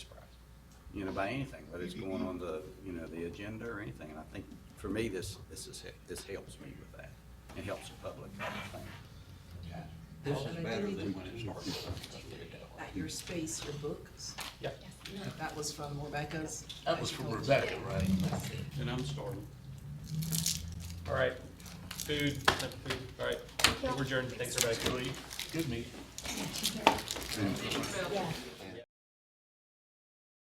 you know, by anything, whether it's going on the, you know, the agenda or anything. And I think, for me, this, this is, this helps me with that. It helps the public, I think. This Well, is they better need than to- when it started. Let's put it that way. At your space, your books? Yeah. That was from Rebecca's? That was from Rebecca, right? And I'm starving. All right, food, no food, all right, we're adjourned, thanks everybody. Good meeting. Yeah.